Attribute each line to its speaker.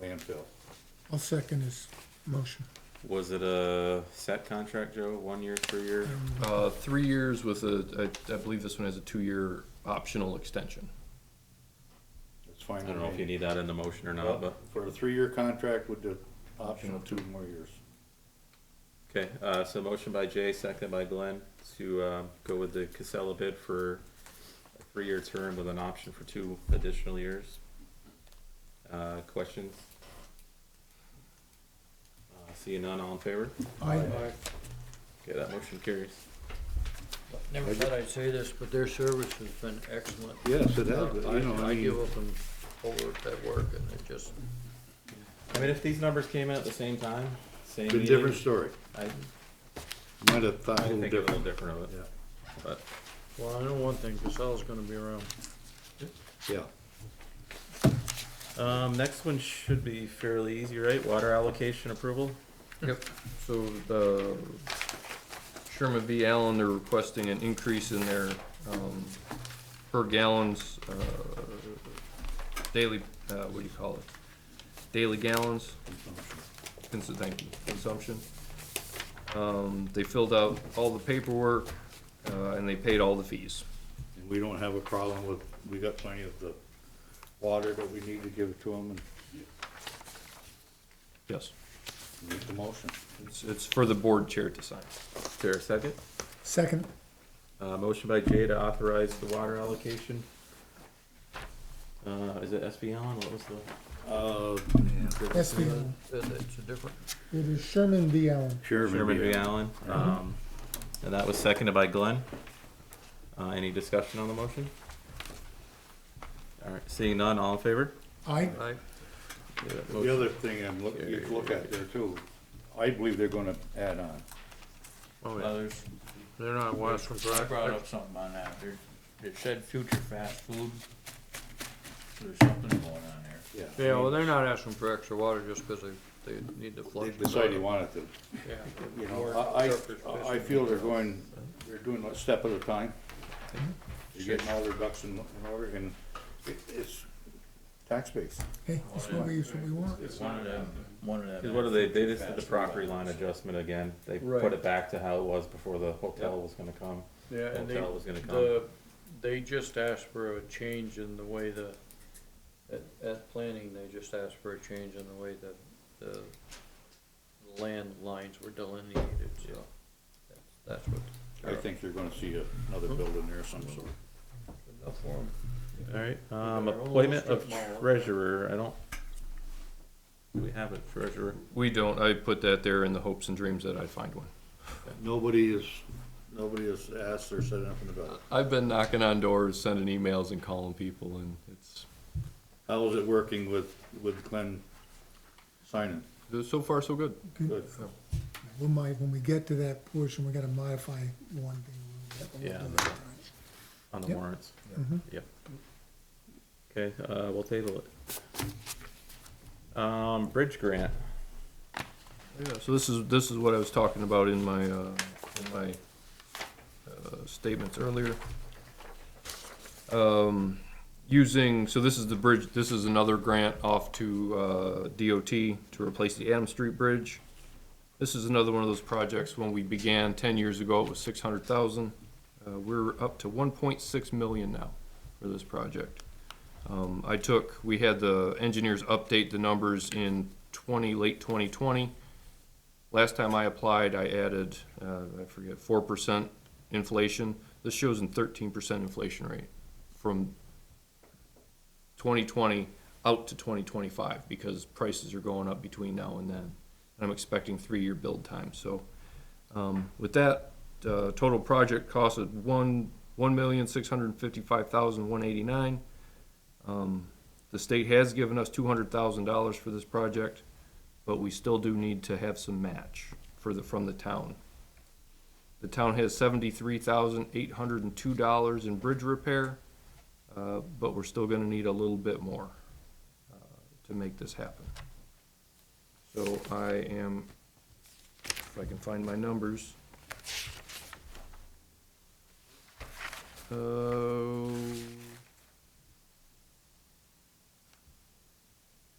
Speaker 1: landfill.
Speaker 2: I'll second his motion.
Speaker 1: Was it a set contract, Joe? One year, three year?
Speaker 3: Uh, three years with a, I, I believe this one has a two-year optional extension.
Speaker 4: It's fine.
Speaker 1: I don't know
Speaker 4: with
Speaker 1: if you
Speaker 4: me.
Speaker 1: need that in the motion or not, but,
Speaker 4: For a three-year contract with the option of two more years.
Speaker 1: okay, uh, so motion by Jay, second by Glenn to, um, go with the Casella bid for a three-year term with an option for two additional years. Uh, questions? Uh, Seeing none, all in favor?
Speaker 2: I,
Speaker 1: Okay, that motion carries.
Speaker 5: Never thought I'd say this, but their service has been excellent.
Speaker 4: Yes, it
Speaker 5: Uh,
Speaker 4: has, but,
Speaker 5: I,
Speaker 4: you know, I
Speaker 5: I
Speaker 4: mean-
Speaker 5: give up and forward that work and it just,
Speaker 1: I mean, if these numbers came in at the same time, same
Speaker 4: Been a
Speaker 1: meeting,
Speaker 4: different story.
Speaker 1: I,
Speaker 4: Might have thought
Speaker 1: I
Speaker 4: a little
Speaker 1: think a little
Speaker 4: different.
Speaker 1: different of it,
Speaker 4: Yeah,
Speaker 1: but,
Speaker 5: well, I know one thing, Casella's gonna be around.
Speaker 4: yeah.
Speaker 1: um, next one should be fairly easy, right? Water allocation approval?
Speaker 3: Yep. So the Sherman V. Allen, they're requesting an increase in their, um, per gallons, uh, daily, uh, what do you call it? Daily gallons, Cons- thank you, consumption. Um, they filled out all the paperwork, uh, and they paid all the fees.
Speaker 4: And we don't have a problem with, we got plenty of the water that we need to give to them
Speaker 3: Yes.
Speaker 4: and make the motion.
Speaker 3: It's, it's for the board chair to sign.
Speaker 1: Is there a second?
Speaker 2: second,
Speaker 1: Uh, motion by Jay to authorize the water allocation. Uh, is it SB Allen? What was the?
Speaker 4: Uh,
Speaker 2: that's the,
Speaker 5: It- It's a different,
Speaker 2: it is Sherman V. Allen.
Speaker 1: Sherman V. Allen.
Speaker 4: Uh-huh.
Speaker 2: Allen.
Speaker 1: Um, and that was seconded by Glenn. Uh, any discussion on the motion? All right, seeing none, all in favor?
Speaker 2: I,
Speaker 5: I,
Speaker 1: Yeah, that
Speaker 4: The
Speaker 1: motion-
Speaker 4: other thing I'm look, you could look at there too, I believe they're gonna add on.
Speaker 5: oh, yeah,
Speaker 6: Others,
Speaker 5: they're not Western
Speaker 6: I
Speaker 5: Rock.
Speaker 6: brought up something on that, there, it said future fast food. There's something going on there.
Speaker 5: Yeah, well, they're not asking for extra water just because they, they need to
Speaker 4: They
Speaker 5: flush. the
Speaker 4: decided they
Speaker 5: toilet.
Speaker 4: wanted to,
Speaker 5: Yeah.
Speaker 4: you know, I, I, I feel they're going, they're doing a step at a time. They're getting all their ducks in, in order and it, it's tax base.
Speaker 2: hey, that's what we, that's what we want.
Speaker 6: It's one of them, one of them.
Speaker 1: Cause what do they, they
Speaker 6: future
Speaker 1: just did the
Speaker 6: fast food
Speaker 1: property line
Speaker 6: items.
Speaker 1: adjustment again. They put
Speaker 5: Right.
Speaker 1: it back to how it was before the hotel was gonna come.
Speaker 5: Yeah, and they,
Speaker 1: Hotel was gonna come.
Speaker 5: the, they just asked for a change in the way the, at, at planning, they just asked for a change in the way the, the land lines were delineated, so. That's that's what.
Speaker 4: I think you're gonna see another building there of some sort.
Speaker 5: Enough for 'em.
Speaker 1: Alright, um,
Speaker 5: They're all
Speaker 1: appointment of
Speaker 5: strip mall.
Speaker 1: treasurer, I don't. Do we have a treasurer?
Speaker 3: We don't, I put that there in the hopes and dreams that I'd find one.
Speaker 4: Nobody is, nobody has asked or said anything about it.
Speaker 3: I've been knocking on doors, sending emails and calling people and it's,
Speaker 4: How is it working with, with Glenn signing?
Speaker 3: so far so good.
Speaker 4: Good.
Speaker 2: We might, when we get to that portion, we gotta modify one thing. a little bit.
Speaker 1: Yeah. On the
Speaker 2: Yep.
Speaker 1: warrants?
Speaker 5: Mm-hmm.
Speaker 2: Mhm.
Speaker 1: Yep. Okay, uh, we'll table it. Um, bridge grant,
Speaker 3: Yeah, so this is, this is what I was talking about in my, uh, in my, uh, statements earlier. Um, using, so this is the bridge, this is another grant off to, uh, DOT to replace the Adams Street Bridge. This is another one of those projects, when we began ten years ago, it was six hundred thousand. Uh, we're up to one point six million now for this project. Um, I took, we had the engineers update the numbers in twenty, late twenty twenty. Last time I applied, I added, uh, I forget, four percent inflation. This shows a thirteen percent inflation rate from twenty twenty out to twenty twenty-five because prices are going up between now and then. And I'm expecting three-year build time, so, um, with that, uh, total project cost of one, one million, six hundred and fifty-five thousand, one eighty-nine. Um, the state has given us two hundred thousand dollars for this project, but we still do need to have some match for the, from the town. The town has seventy-three thousand eight hundred and two dollars in bridge repair, uh, but we're still gonna need a little bit more uh, to make this happen. So I am, if I can find my numbers. Uh,